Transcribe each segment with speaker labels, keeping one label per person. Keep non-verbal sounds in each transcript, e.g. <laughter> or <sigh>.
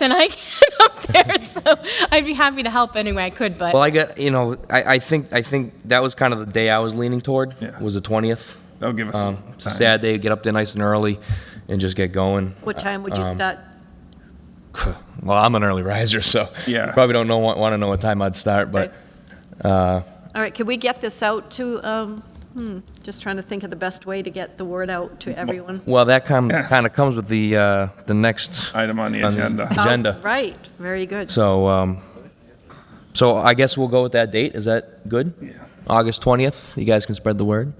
Speaker 1: than I <laughs> can up there, so I'd be happy to help any way I could, but
Speaker 2: Well, I got you know, I, I think I think that was kind of the day I was leaning toward.
Speaker 3: Yeah.
Speaker 2: Was the twentieth.
Speaker 3: That'll give us some
Speaker 2: Um, it's a
Speaker 3: time.
Speaker 2: sad day. Get up there nice and early, and just get going. <sighs>
Speaker 4: What time would you
Speaker 2: um,
Speaker 4: start?
Speaker 2: Well, I'm an early riser, so
Speaker 3: Yeah.
Speaker 2: you probably don't know want, want to know what time I'd start, but
Speaker 4: All right, can we get this out to, um, hmm, just trying to think of the best way to get the word out to everyone.
Speaker 2: well, that comes kind of comes with the uh, the next
Speaker 3: Item on the
Speaker 2: on the
Speaker 3: agenda.
Speaker 4: Oh,
Speaker 2: agenda.
Speaker 4: Right, very good.
Speaker 2: So, um, so I guess we'll go with that date. Is that good?
Speaker 3: Yeah.
Speaker 2: August twentieth. You guys can spread the word.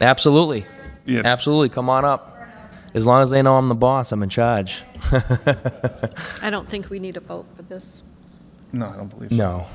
Speaker 2: Absolutely.
Speaker 3: Yes.
Speaker 2: Absolutely. Come on up. As long as they know I'm the boss, I'm in charge.
Speaker 4: I don't think we need a vote for this.
Speaker 3: No, I don't believe so.
Speaker 2: No.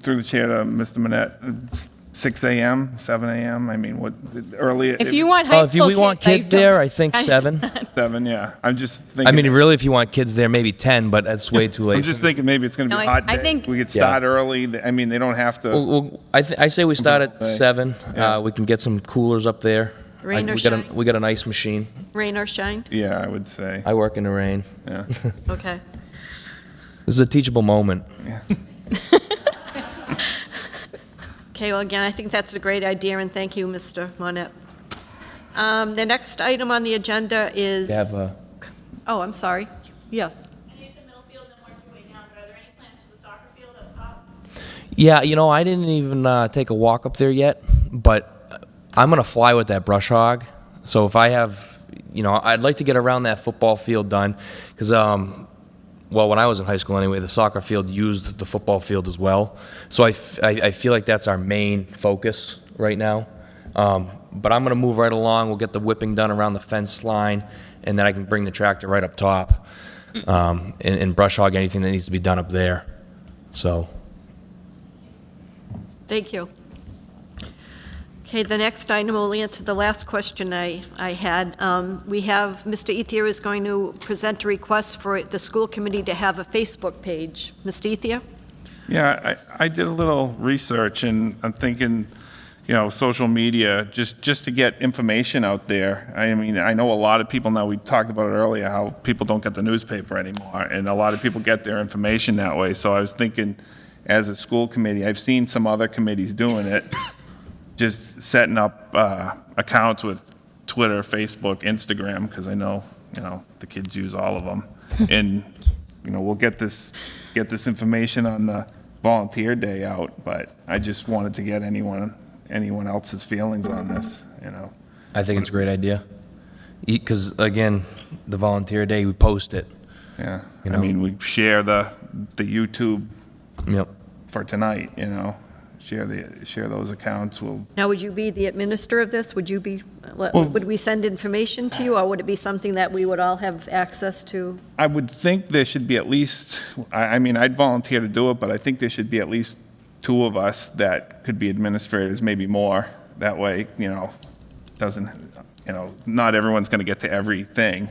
Speaker 3: Through the chair to Mr. Manette, s- 6 AM, 7 AM, I mean, what, early?
Speaker 1: if you want high
Speaker 2: Oh, if you,
Speaker 1: school
Speaker 2: we
Speaker 1: kids,
Speaker 2: want kids
Speaker 1: I
Speaker 2: there,
Speaker 1: don't-
Speaker 2: I think seven.
Speaker 3: Seven, yeah. I'm just thinking.
Speaker 2: I mean, really, if you want kids there, maybe ten, but that's way too late.
Speaker 3: I'm just thinking maybe it's going to
Speaker 1: No,
Speaker 3: be a
Speaker 1: I-
Speaker 3: hot
Speaker 1: I
Speaker 3: day.
Speaker 1: think-
Speaker 3: We could
Speaker 2: Yeah.
Speaker 3: start early. Th- I mean, they don't have
Speaker 2: Well,
Speaker 3: to,
Speaker 2: well, I, th- I say we start at
Speaker 3: Okay.
Speaker 2: seven.
Speaker 3: Yeah.
Speaker 2: Uh, we can get some coolers up there.
Speaker 4: Rain
Speaker 2: I-
Speaker 4: or
Speaker 2: we got a-
Speaker 4: shine.
Speaker 2: We got an ice machine.
Speaker 4: Rain or shine?
Speaker 3: yeah, I would say.
Speaker 2: I work in the rain.
Speaker 3: Yeah.
Speaker 4: Okay.
Speaker 2: This is a teachable moment.
Speaker 4: Okay, well, again, I think that's a great idea, and thank you, Mr. Monette. Um, The next item on the agenda is,
Speaker 2: To have a,
Speaker 4: oh, I'm sorry. Yes.
Speaker 5: And you said middle field and work your way down, but are there any plans for the soccer field up top?
Speaker 2: yeah, you know, I didn't even uh, take a walk up there yet, but I'm gonna fly with that brush hog. So if I have, you know, I'd like to get around that football field done, because um, well, when I was in high school anyway, the soccer field used the football field as well. So I, f- I, I feel like that's our main focus right now. Um, but I'm going to move right along. We'll get the whipping done around the fence line, and then I can bring the tractor right up top um, and, and brush hog anything that needs to be done up there. So,
Speaker 4: Thank you. Okay, the next item will answer the last question I, I had. Um, We have, Mr. Ethier is going to present a request for the school committee to have a Facebook page. Mr. Ethier?
Speaker 3: Yeah, I, I did a little research and I'm thinking, you know, social media, just, just to get information out there. I mean, I know a lot of people now, we talked about it earlier, how people don't get the newspaper anymore. And a lot of people get their information that way. So I was thinking, as a school committee, I've seen some other committees doing it, just setting up uh, accounts with Twitter, Facebook, Instagram, because I know, you know, the kids use all of them. And, you know, we'll get this, get this information on the volunteer day out, but I just wanted to get anyone, anyone else's feelings on this, you know?
Speaker 2: I think it's a great idea. Because, again, the volunteer day, we post it.
Speaker 3: Yeah,
Speaker 2: You
Speaker 3: I
Speaker 2: know.
Speaker 3: mean, we share the, the YouTube
Speaker 2: Yep.
Speaker 3: for tonight, you know? Share the, share those accounts, we'll,
Speaker 4: Now, would you be the administrator of this? Would you be, uh, would we send information to you, or would it be something that we would all have access to?
Speaker 3: I would think there should be at least, I, I mean, I'd volunteer to do it, but I think there should be at least two of us that could be administrators, maybe more. That way, you know, doesn't, you know, not everyone's going to get to everything.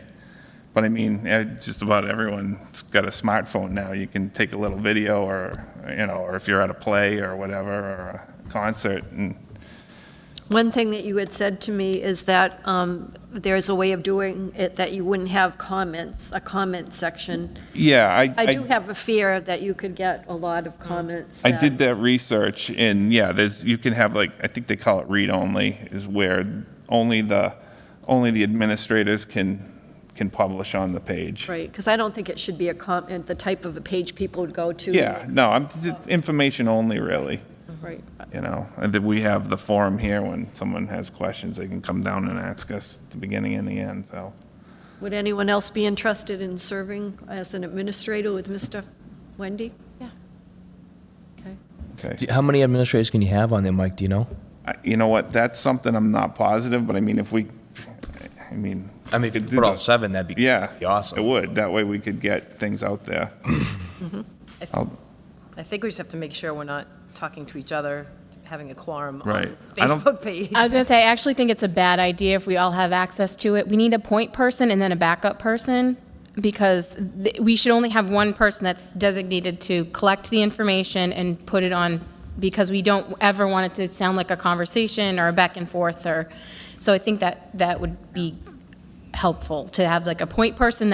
Speaker 3: But I mean, eh, just about everyone's got a smartphone now. You can take a little video or, you know, or if you're at a play or whatever, or a concert and
Speaker 4: One thing that you had said to me is that um, there's a way of doing it that you wouldn't have comments, a comment section.
Speaker 3: yeah, I.
Speaker 4: I do have a fear that you could get a lot of comments.
Speaker 3: I
Speaker 4: that-
Speaker 3: did that research, and yeah, there's you can have like I think they call it read only is where only the only the administrators can can publish on the page.
Speaker 4: Right, because I don't think it should be a comment, the type of a page people would go to.
Speaker 3: Yeah, no, I'm it's information only really.
Speaker 4: Right.
Speaker 3: You know, and then we have the forum here. When someone has questions, they can come down and ask us at the beginning and the end. So
Speaker 4: Would anyone else be interested in serving as an administrator with Mr. Wendy? Yeah. Okay.
Speaker 3: okay,
Speaker 2: Do- How many administrators can you have on there, Mike? Do you know?
Speaker 3: I, you know what? That's something I'm not positive, but I mean, if we, I mean,
Speaker 2: I mean, if you
Speaker 3: could
Speaker 2: could
Speaker 3: do
Speaker 2: put all
Speaker 3: the-
Speaker 2: seven, that'd be,
Speaker 3: yeah,
Speaker 2: be awesome.
Speaker 3: It would. That way, we could get things out there.
Speaker 2: Mm-hmm.
Speaker 3: I'll-
Speaker 6: I think we just have to make sure we're not talking to each other, having a quorum on
Speaker 3: Right. I don't-
Speaker 6: Facebook page.
Speaker 1: I was gonna say, I actually think it's a bad idea if we all have access to it. We need a point person and then a backup person, because th- we should only have one person that's designated to collect the information and put it on, because we don't ever want it to sound like a conversation or a back and forth, or, so I think that, that would be helpful, to have like a point person that